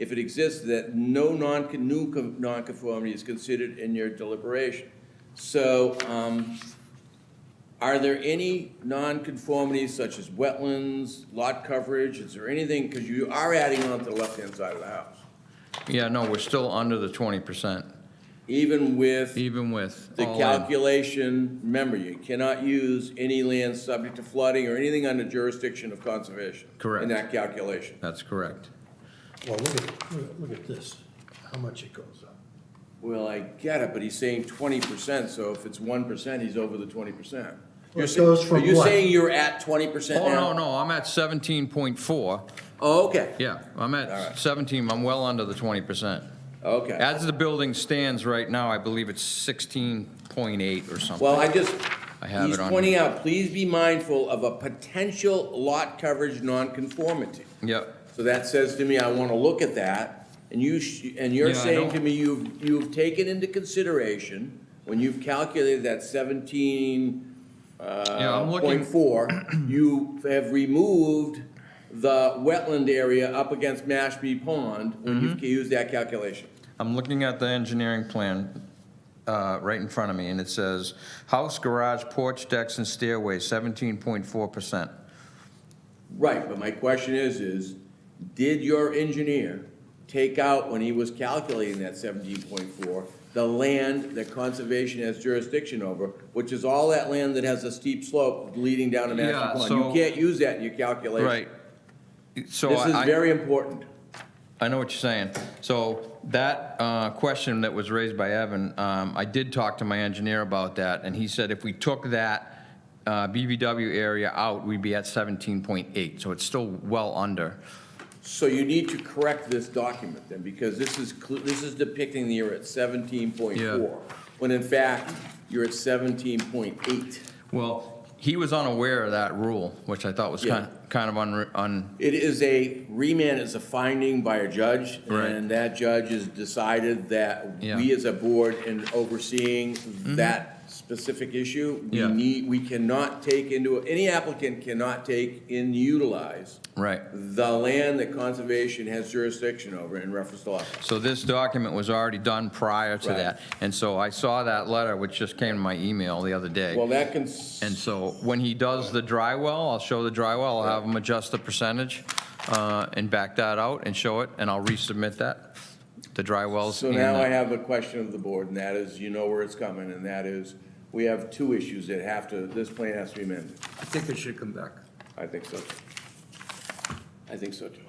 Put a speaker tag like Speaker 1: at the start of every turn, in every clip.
Speaker 1: if it exists, that no non, new con- nonconformity is considered in your deliberation. So, um, are there any nonconformities such as wetlands, lot coverage? Is there anything, because you are adding on to the left-hand side of the house,
Speaker 2: Yeah, no, we're still under the twenty percent,
Speaker 1: even with
Speaker 2: even with
Speaker 1: the
Speaker 2: all in.
Speaker 1: calculation, remember, you cannot use any land subject to flooding or anything under jurisdiction of conservation.
Speaker 2: Correct.
Speaker 1: In that calculation.
Speaker 2: That's correct.
Speaker 3: Well, look at, look at- look at this, how much it goes up.
Speaker 1: Well, I get it, but he's saying twenty percent, so if it's one percent, he's over the twenty percent.
Speaker 3: Well, it goes
Speaker 1: Are
Speaker 3: from
Speaker 1: you
Speaker 3: what?
Speaker 1: saying you're at twenty percent
Speaker 2: Oh,
Speaker 1: now?
Speaker 2: no, no, I'm at seventeen point four.
Speaker 1: Oh, okay,
Speaker 2: Yeah, I'm
Speaker 1: All right.
Speaker 2: at seventeen, I'm well under the twenty percent.
Speaker 1: okay.
Speaker 2: As the building stands right now, I believe it's sixteen point eight or something.
Speaker 1: Well, I just,
Speaker 2: I have
Speaker 1: he's
Speaker 2: it on
Speaker 1: pointing out, please be mindful of a potential lot coverage nonconformity.
Speaker 2: Yep,
Speaker 1: So that says to me, I want to look at that, and you, sh- and you're
Speaker 2: Yeah, I
Speaker 1: saying
Speaker 2: don't-
Speaker 1: to me, you've, you've taken into consideration, when you've calculated that seventeen,
Speaker 2: Yeah,
Speaker 1: uh,
Speaker 2: I'm looking-
Speaker 1: point four, you have removed the wetland area up against Mashpee Pond, when
Speaker 2: Mm-hmm.
Speaker 1: you've used that calculation.
Speaker 2: I'm looking at the engineering plan, uh, right in front of me, and it says, house, garage, porch, decks, and stairway, seventeen point four percent.
Speaker 1: Right, but my question is, is did your engineer take out, when he was calculating that seventeen point four, the land that conservation has jurisdiction over, which is all that land that has a steep slope leading down to
Speaker 2: Yeah,
Speaker 1: Mashpee Pond? You
Speaker 2: so-
Speaker 1: can't use that in your calculation.
Speaker 2: Right. So
Speaker 1: This is
Speaker 2: I- I,
Speaker 1: very important.
Speaker 2: I know what you're saying. So that uh, question that was raised by Evan, um, I did talk to my engineer about that, and he said if we took that uh, BBW area out, we'd be at 17.8, so it's still well under.
Speaker 1: So you need to correct this document then, because this is, cl- this is depicting that you're at seventeen point four, when in fact, you're at seventeen point eight.
Speaker 2: Well, he was unaware of that rule, which I thought was
Speaker 1: Yeah.
Speaker 2: kind kind of unre- un,
Speaker 1: It is a, remand is a finding by a judge,
Speaker 2: Right.
Speaker 1: and that judge has decided that we
Speaker 2: Yeah. Mm-hmm.
Speaker 1: as a board in overseeing that specific issue, we
Speaker 2: Yeah.
Speaker 1: need, we cannot take into, any applicant cannot take and utilize
Speaker 2: right.
Speaker 1: the land that conservation has jurisdiction over in reference to lot.
Speaker 2: So this document was already done prior to
Speaker 1: Right.
Speaker 2: that. And so I saw that letter, which just came to my email the other day.
Speaker 1: Well, that can,
Speaker 2: And so when he does the dry well, I'll show the dry well, I'll have him adjust the percentage uh, and back that out and show it, and I'll resubmit that, the dry wells.
Speaker 1: so
Speaker 2: and uh,
Speaker 1: now
Speaker 2: the-
Speaker 1: I have a question of the board, and that is, you know where it's coming, and that is, we have two issues that have to, this plan has to be amended.
Speaker 4: I think it should come back.
Speaker 1: I think so. too. I think so, too.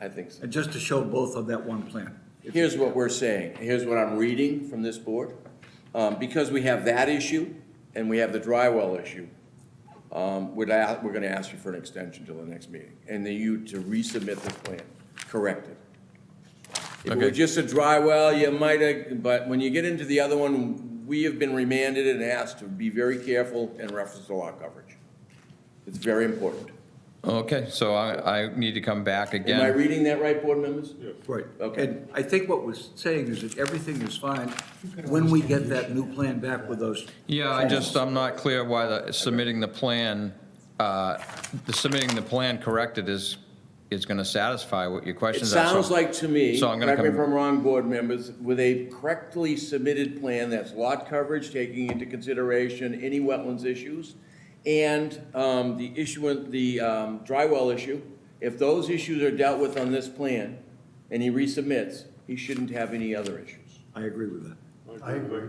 Speaker 1: I think so.
Speaker 4: And uh, just to show both on that one plan.
Speaker 1: Here's what we're saying, here's what I'm reading from this board. Um, Because we have that issue and we have the dry well issue, um, we'd a- we're going to ask you for an extension till the next meeting. And then you to resubmit this plan, corrected. If it were
Speaker 2: Okay.
Speaker 1: just a dry well, you might have, but when you get into the other one, we have been remanded and asked to be very careful in reference to lot coverage. It's very important.
Speaker 2: Okay, so I, I need to come back
Speaker 1: Am I
Speaker 2: again.
Speaker 1: reading that right, board members?
Speaker 4: Right.
Speaker 1: Okay.
Speaker 4: And I think what we're saying is that everything is fine when we get that new plan back with those.
Speaker 2: Yeah, I just, I'm not clear why the, submitting the plan, uh, the submitting the plan corrected is, is going to satisfy what your
Speaker 1: It
Speaker 2: questions are. so-
Speaker 1: sounds like to me,
Speaker 2: So I'm gonna
Speaker 1: correct me if
Speaker 2: come-
Speaker 1: I'm wrong, board members, with a correctly submitted plan that's lot coverage, taking into consideration any wetlands issues, and um, the issuance, the um, dry well issue, if those issues are dealt with on this plan, and he resubmits, he shouldn't have any other issues.
Speaker 4: I agree with that.
Speaker 3: I agree.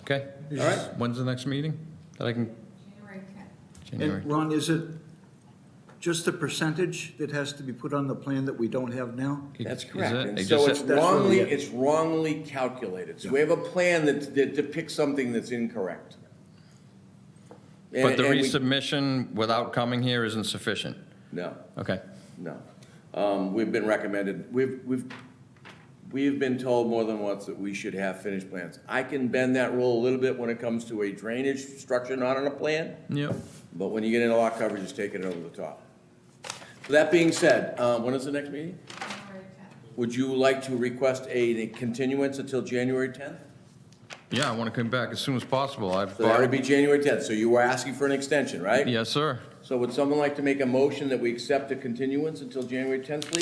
Speaker 2: Okay,
Speaker 1: All right?
Speaker 2: when's the next meeting? That I can,
Speaker 5: January 10th.
Speaker 2: January?
Speaker 4: And Ron, is it just the percentage that has to be put on the plan that we don't have now?
Speaker 1: That's
Speaker 2: Is it?
Speaker 1: correct.
Speaker 2: They
Speaker 1: And
Speaker 2: just
Speaker 1: so
Speaker 2: said-
Speaker 1: it's
Speaker 4: That's really
Speaker 1: wrongly,
Speaker 4: it.
Speaker 1: it's wrongly calculated. So we have a plan that that depicts something that's incorrect.
Speaker 2: But the
Speaker 1: And- and we-
Speaker 2: resubmission without coming here isn't sufficient?
Speaker 1: No.
Speaker 2: Okay.
Speaker 1: No. Um, We've been recommended, we've, we've, we've been told more than once that we should have finished plans. I can bend that rule a little bit when it comes to a drainage structure not on a plan,
Speaker 2: Yep.
Speaker 1: but when you get into lot coverage, it's taking it over the top. That being said, uh, when is the next meeting?
Speaker 5: January 10th.
Speaker 1: Would you like to request a continuance until January 10th?
Speaker 2: Yeah, I want to come back as soon as possible. I've
Speaker 1: So that would
Speaker 2: already,
Speaker 1: be January 10th, so you were asking for an extension, right?
Speaker 2: yes, sir.
Speaker 1: So would someone like to make a motion that we accept the continuance until January 10th, please?